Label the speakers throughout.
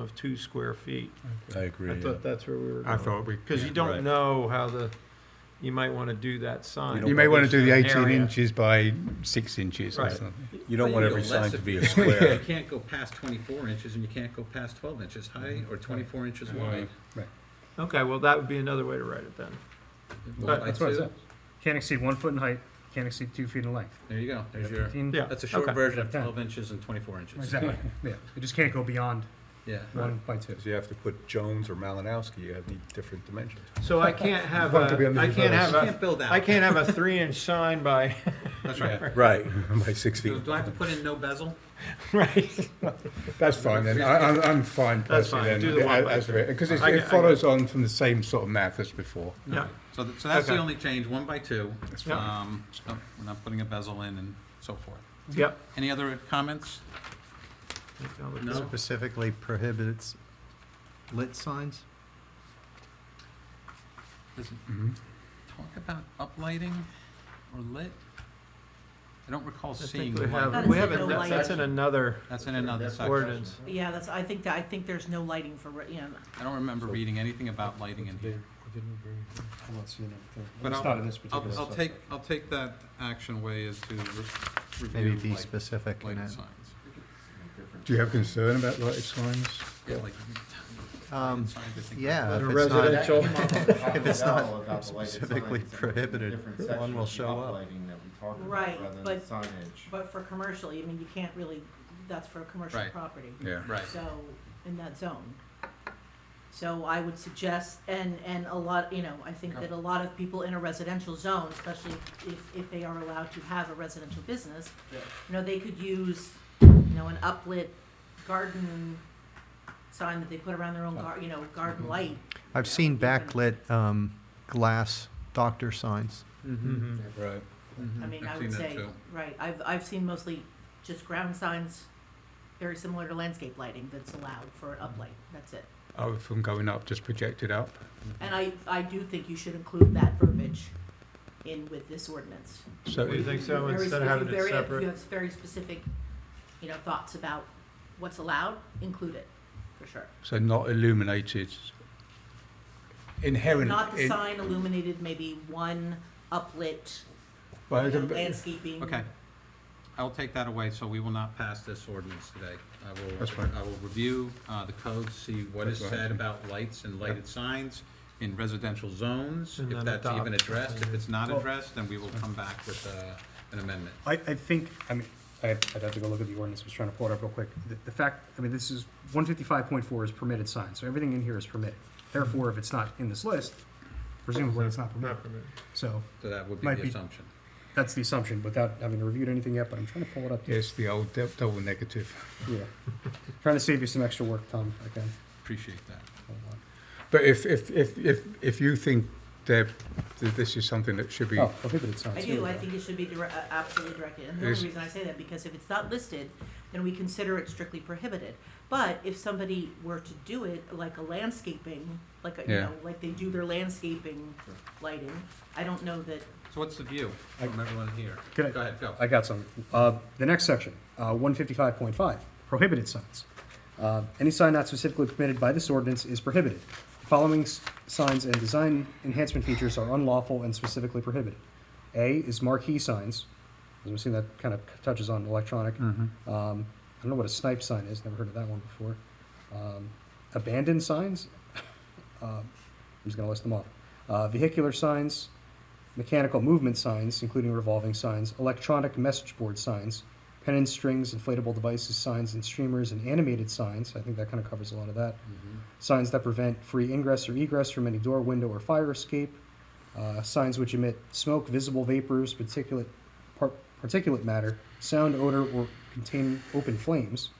Speaker 1: of two square feet.
Speaker 2: I agree.
Speaker 1: I
Speaker 2: yeah.
Speaker 1: thought that's where we were
Speaker 3: I
Speaker 1: going.
Speaker 3: thought we,
Speaker 1: Because you
Speaker 2: Right.
Speaker 1: don't know how the, you might want to do that sign.
Speaker 2: don't
Speaker 4: You may want to do the
Speaker 1: Area.
Speaker 4: 18 inches by 6 inches or
Speaker 1: Right.
Speaker 4: something.
Speaker 2: You don't
Speaker 5: But
Speaker 2: want
Speaker 5: you
Speaker 2: every
Speaker 5: go
Speaker 2: sign
Speaker 5: less
Speaker 2: to
Speaker 5: if-
Speaker 2: be a square.
Speaker 5: You can't go past twenty-four inches and you can't go past twelve inches high
Speaker 1: Mm-hmm.
Speaker 5: or twenty-four inches wide.
Speaker 1: Okay, well, that would be another way to write it then.
Speaker 5: Well,
Speaker 6: That's what I
Speaker 5: two.
Speaker 6: said. Can't exceed one foot in height, can't exceed two feet in length.
Speaker 5: There you go, there's your,
Speaker 6: Fifteen-
Speaker 1: Yeah.
Speaker 5: that's a short
Speaker 1: Okay.
Speaker 5: version of
Speaker 6: Yeah.
Speaker 5: twelve inches and twenty-four inches.
Speaker 6: Exactly, yeah. It just can't go beyond
Speaker 5: Yeah.
Speaker 6: one by two.
Speaker 2: So you have to put Jones or Malinowski, you have the different dimensions.
Speaker 1: So I can't have
Speaker 4: Want to be
Speaker 1: a,
Speaker 4: under
Speaker 1: I
Speaker 4: the
Speaker 1: can't
Speaker 5: You
Speaker 1: have
Speaker 5: can't
Speaker 1: a,
Speaker 5: build out.
Speaker 1: I can't have a three inch sign by,
Speaker 5: That's right.
Speaker 2: Right, by six
Speaker 5: Do
Speaker 2: feet.
Speaker 5: do I have to put in no bezel?
Speaker 1: right?
Speaker 4: That's fine then. I, I'm, I'm fine
Speaker 1: That's
Speaker 4: personally
Speaker 1: fine.
Speaker 4: then.
Speaker 1: Do the one by
Speaker 4: Because it
Speaker 1: I get- I
Speaker 4: follows on from the same sort of math as before.
Speaker 1: Yeah,
Speaker 5: So, th- so that's the
Speaker 1: Okay.
Speaker 5: only change, one by two.
Speaker 1: fine.
Speaker 5: Um, so We're not putting a bezel in and so forth.
Speaker 1: yep.
Speaker 5: Any other comments? No?
Speaker 7: specifically prohibits lit signs?
Speaker 5: Does it
Speaker 2: Mm-hmm.
Speaker 5: talk about uplighting or lit? I don't recall
Speaker 1: I
Speaker 5: seeing
Speaker 1: think we
Speaker 5: light.
Speaker 1: have,
Speaker 8: That's
Speaker 1: we
Speaker 8: in
Speaker 1: haven't,
Speaker 8: the
Speaker 1: that's that's in another
Speaker 5: That's in another section.
Speaker 1: ordinance.
Speaker 8: Yeah, that's, I think that, I think there's no lighting for, re- you know,
Speaker 5: I don't remember reading anything about lighting in here.
Speaker 7: I'm not seeing anything.
Speaker 5: But
Speaker 7: It's
Speaker 5: I'll-
Speaker 7: not in this
Speaker 5: I'll,
Speaker 7: particular
Speaker 5: I'll
Speaker 7: section.
Speaker 5: take, I'll take that action way is to re-
Speaker 7: Maybe
Speaker 5: review
Speaker 7: be
Speaker 5: light,
Speaker 7: specific in
Speaker 5: lighting
Speaker 7: it.
Speaker 5: signs.
Speaker 4: Do you have concern about lighted signs?
Speaker 5: Yeah, like,
Speaker 7: Um,
Speaker 5: signs, I think.
Speaker 7: yeah, if
Speaker 1: In a
Speaker 7: it's not,
Speaker 1: residential,
Speaker 7: if it's not specifically prohibited, one will show up.
Speaker 8: Right, but-
Speaker 9: Signage.
Speaker 8: but for commercial, I mean, you can't really, that's for a commercial
Speaker 5: Right.
Speaker 8: property.
Speaker 4: Yeah.
Speaker 5: Right,
Speaker 8: So, in that zone. So I would suggest, and, and a lot, you know, I think that a lot of people in a residential zone, especially if, if they are allowed to have a residential business, you know, they could use, you know, an uplit garden sign that they put around their own gar, you know, garden light.
Speaker 7: I've seen backlit, um, glass doctor signs.
Speaker 5: Mm-hmm.
Speaker 1: Mhm.
Speaker 2: Right.
Speaker 8: I mean,
Speaker 5: I've
Speaker 8: I
Speaker 5: seen
Speaker 8: would
Speaker 5: that
Speaker 8: say,
Speaker 5: too.
Speaker 8: right, I've, I've seen mostly just ground signs, very similar to landscape lighting that's allowed for an
Speaker 5: Mm-hmm.
Speaker 8: uplight, that's it.
Speaker 4: Oh, from going up, just projected up.
Speaker 8: And I, I do think you should include that verbiage in with this ordinance.
Speaker 4: So
Speaker 1: Do you
Speaker 4: it-
Speaker 1: think so,
Speaker 8: Very-
Speaker 1: instead of
Speaker 8: if you
Speaker 1: having it
Speaker 8: very- If you
Speaker 1: separate?
Speaker 8: have very specific, you know, thoughts about what's allowed, include it, for sure.
Speaker 4: so not illuminated. Inherent.
Speaker 8: Not the
Speaker 4: in-
Speaker 8: sign illuminated, maybe one uplit,
Speaker 4: well,
Speaker 8: you
Speaker 4: it's
Speaker 8: know,
Speaker 4: a bit-
Speaker 8: landscaping.
Speaker 5: Okay. I'll take that away, so we will not pass this ordinance today. I
Speaker 4: That's fine.
Speaker 5: will, I will review uh, the code, see what is
Speaker 4: That's fine.
Speaker 5: said about lights and lighted signs in residential zones,
Speaker 1: And
Speaker 5: if
Speaker 1: then
Speaker 5: that's even
Speaker 1: adopt.
Speaker 5: addressed. If it's not addressed, then we will come back with uh, an amendment.
Speaker 6: I, I think, I mean, I- I'd have to go look at the ordinance, I was trying to pull it up real quick. The- The fact, I mean, this is, one fifty-five point four is permitted sign, so everything in here is permitted. Therefore, if it's not in this list, presumably it's not permitted.
Speaker 1: Not permitted.
Speaker 6: So,
Speaker 5: So that would be
Speaker 6: Might
Speaker 5: the
Speaker 6: be-
Speaker 5: assumption.
Speaker 6: that's the assumption, without having reviewed anything yet, but I'm trying to pull it up.
Speaker 4: Yes, the old dou- double negative.
Speaker 6: Yeah. Trying to save you some extra work, Tom, if I can.
Speaker 5: Appreciate that.
Speaker 6: Hold on.
Speaker 4: But if, if, if, if, if you think that that this is something that should be,
Speaker 6: Oh, prohibited signs.
Speaker 8: I
Speaker 6: here
Speaker 8: do,
Speaker 6: we
Speaker 8: I
Speaker 6: go.
Speaker 8: think it should be dire- uh, absolutely directed, and the
Speaker 4: Is-
Speaker 8: only reason I say that, because if it's not listed, then we consider it strictly prohibited. But if somebody were to do it, like a landscaping, like, a- you
Speaker 4: Yeah.
Speaker 8: know, like they do their landscaping lighting, I don't know that,
Speaker 5: So what's the view from everyone here? Go
Speaker 6: Can I-
Speaker 5: ahead, go.
Speaker 6: I got some. Uh, The next section, uh, one fifty-five point five, prohibited signs. Uh, Any sign not specifically permitted by this ordinance is prohibited. The Following s- signs and design enhancement features are unlawful and specifically prohibited. A is marquee signs. As we've seen, that kind of touches on electronic. Um, I don't know what a snipe sign is, never heard of that one before. Um, Abandoned signs, Uh, I'm just gonna list them off. Uh, Vehicular signs, mechanical movement signs, including revolving signs, electronic message board signs, pen and strings, inflatable devices, signs and streamers, and animated signs. I think that kind of covers a lot of that. Signs that prevent free ingress or egress from any door, window, or fire escape. Uh, signs which emit smoke, visible vapors, particulate, par- particulate matter, sound, odor, or contain open flames.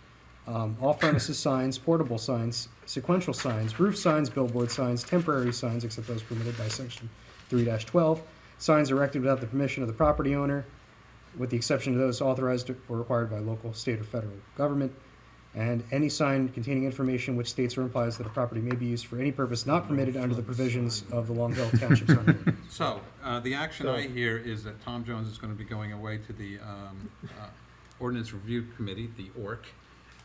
Speaker 6: Um, off premises signs, portable signs, sequential signs, roof signs, billboard signs, temporary signs, except those permitted by section three twelve. Signs erected without the permission of the property owner, with the exception of those authorized or required by local, state, or federal government. And any sign containing information which states or implies that a property may be used for any purpose not permitted under the provisions of the Long Hill Township zoning ordinance.
Speaker 5: So, uh, the action I hear is that Tom Jones is gonna be going away to the, um, uh, ordinance review committee, the ORC,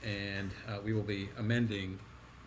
Speaker 5: and, uh, we will be amending